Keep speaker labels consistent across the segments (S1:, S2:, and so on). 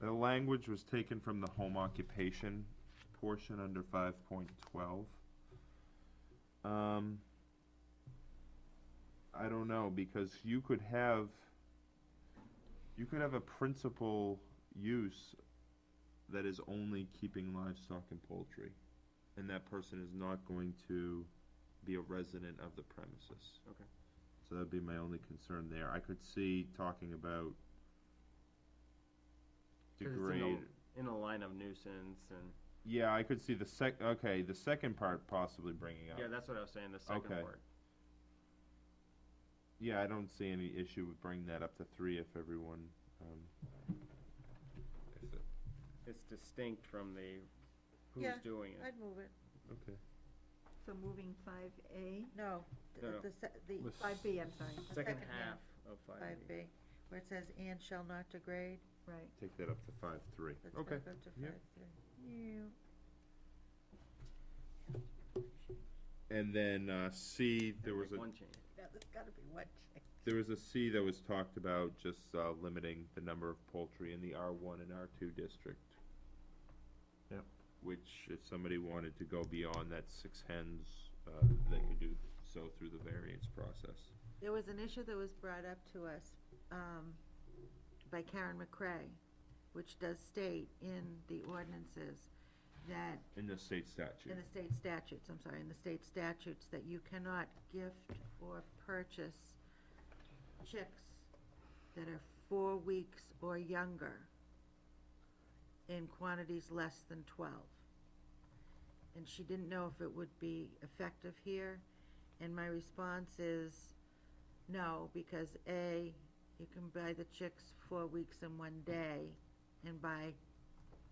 S1: The language was taken from the home occupation portion under five point twelve. Um, I don't know, because you could have, you could have a principal use that is only keeping livestock and poultry, and that person is not going to be a resident of the premises.
S2: Okay.
S1: So that'd be my only concern there. I could see talking about
S2: 'Cause it's in the-
S1: degrade.
S2: in a line of nuisance and,
S1: Yeah, I could see the sec, okay, the second part possibly bringing up.
S2: yeah, that's what I was saying, the second
S1: Okay.
S2: word.
S1: Yeah, I don't see any issue with bringing that up to three if everyone, um. if it-
S2: It's distinct from the
S3: Yeah,
S2: who's doing it.
S3: I'd move it.
S1: Okay.
S4: So moving five A,
S3: No, th-
S2: No, no.
S3: the, se- the
S1: The
S4: five B, I'm sorry,
S3: the
S2: Second half of
S3: Five
S2: five B.
S3: B, where it says, and shall not degrade.
S4: right.
S1: Take that up to five, three.
S3: Let's
S1: Okay.
S3: back up to
S1: yep.
S3: five three. Yeah.
S1: And then, uh, C, there
S2: Make
S1: was a,
S2: One change.
S3: Now, there's gotta be one change.
S1: there was a C that was talked about just, uh, limiting the number of poultry in the R one and R two district.
S5: Yep.
S1: Which, if somebody wanted to go beyond that six hens, uh, they could do so through the variance process.
S3: There was an issue that was brought up to us, um, by Karen McCray, which does state in the ordinances that
S1: In the state statute.
S3: In the state statutes, I'm sorry, in the state statutes, that you cannot gift or purchase chicks that are four weeks or younger in quantities less than twelve. And she didn't know if it would be effective here, and my response is no, because A, you can buy the chicks four weeks in one day and buy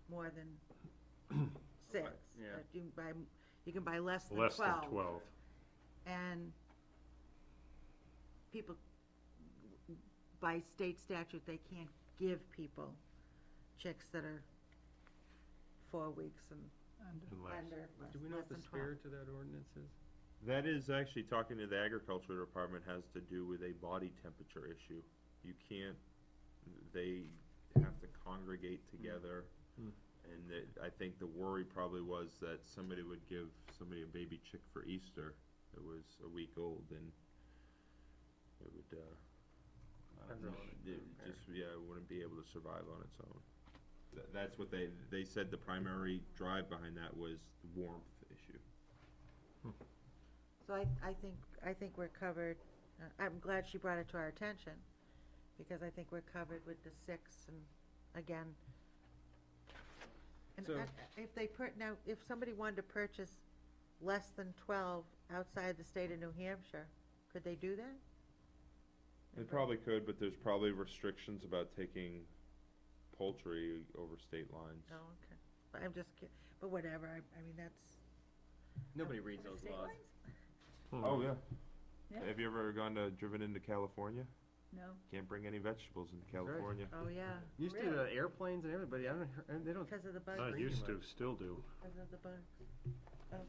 S3: more than six.
S2: yeah.
S3: But You can buy, you can buy less than twelve.
S5: Less than twelve.
S3: And people, by state statute, they can't give people chicks that are four weeks and
S5: and less.
S3: under, less less than twelve.
S2: Do we know what the spirit of that ordinance is?
S1: That is actually talking to the agriculture department has to do with a body temperature issue. You can't, they have to congregate together.
S5: Mm.
S1: And that, I think the worry probably was that somebody would give somebody a baby chick for Easter that was a week old and it would, uh,
S2: I don't know.
S1: it would just, yeah, it wouldn't be able to survive on its own. Tha that's what they, they said the primary drive behind that was the warmth issue.
S3: So I, I think, I think we're covered, Uh, I'm glad she brought it to our attention, because I think we're covered with the six and, again. And
S2: So-
S3: I- if they per, now, if somebody wanted to purchase less than twelve outside the state of New Hampshire, could they do that?
S1: They probably could, but there's probably restrictions about taking poultry over state lines.
S3: No, okay, But I'm just ki- but whatever, I, I mean, that's.
S2: Nobody reads those
S4: State
S2: laws.
S4: lines?
S5: Hmm.
S1: Oh, yeah.
S4: Yeah.
S1: Have you ever gone to, driven into California?
S4: No.
S1: Can't bring any vegetables into
S2: right.
S1: California.
S3: Oh, yeah,
S2: Used to the airplanes and everybody, I don't, hear- they don't
S3: because of the bug,
S5: I
S2: Not
S5: used to, still do.
S3: because of the Oh,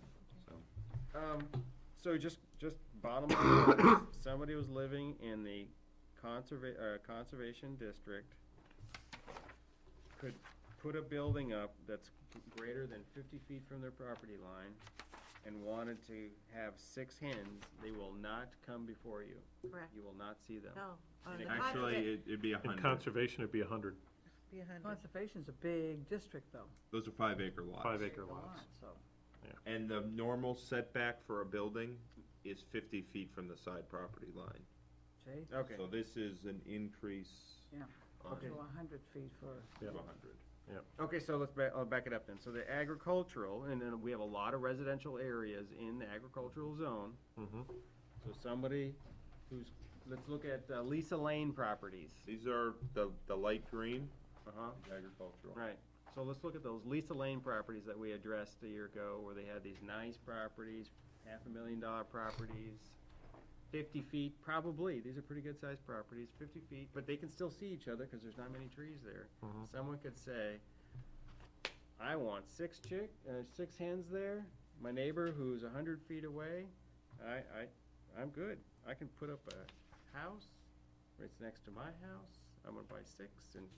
S3: bug.
S2: Um, so just, just bottom line, is somebody was living in the conserva- uh, conservation district could put a building up that's greater than fifty feet from their property line and wanted to have six hens, they will not come before you.
S3: Correct.
S2: You will not see them.
S3: No. on
S2: And
S3: the
S1: Actually,
S3: continent,
S1: it- it'd be a
S5: In
S1: hundred.
S5: conservation, it'd be a hundred,
S3: Be a hundred.
S6: Conservation's a big district, though.
S1: Those are five acre lots.
S5: five acre
S6: It's a
S5: lots.
S6: lot, So,
S1: And the normal setback for a building is fifty feet from the side property line.
S6: Jay,
S2: Okay,
S1: So this is an increase
S6: yeah,
S1: on
S6: up to a hundred feet for,
S1: to
S5: Yeah.
S1: a hundred.
S2: okay, so let's back, I'll back it up then. So the agricultural, and then we have a lot of residential areas in the agricultural zone.
S5: Mm-hmm.
S2: So somebody who's, let's look at uh, Lisa Lane properties.
S1: These are the, the light green,
S2: Uh-huh,
S1: agricultural.
S2: right. So let's look at those Lisa Lane properties that we addressed a year ago, where they had these nice properties, half a million dollar properties, fifty feet, probably, these are pretty good sized properties, fifty feet, but they can still see each other, cause there's not many trees there.
S5: Mhm.
S2: Someone could say, I want six chick, uh, six hens there, my neighbor who's a hundred feet away, I, I, I'm good. I can put up a house, right next to my house, I'm gonna buy six and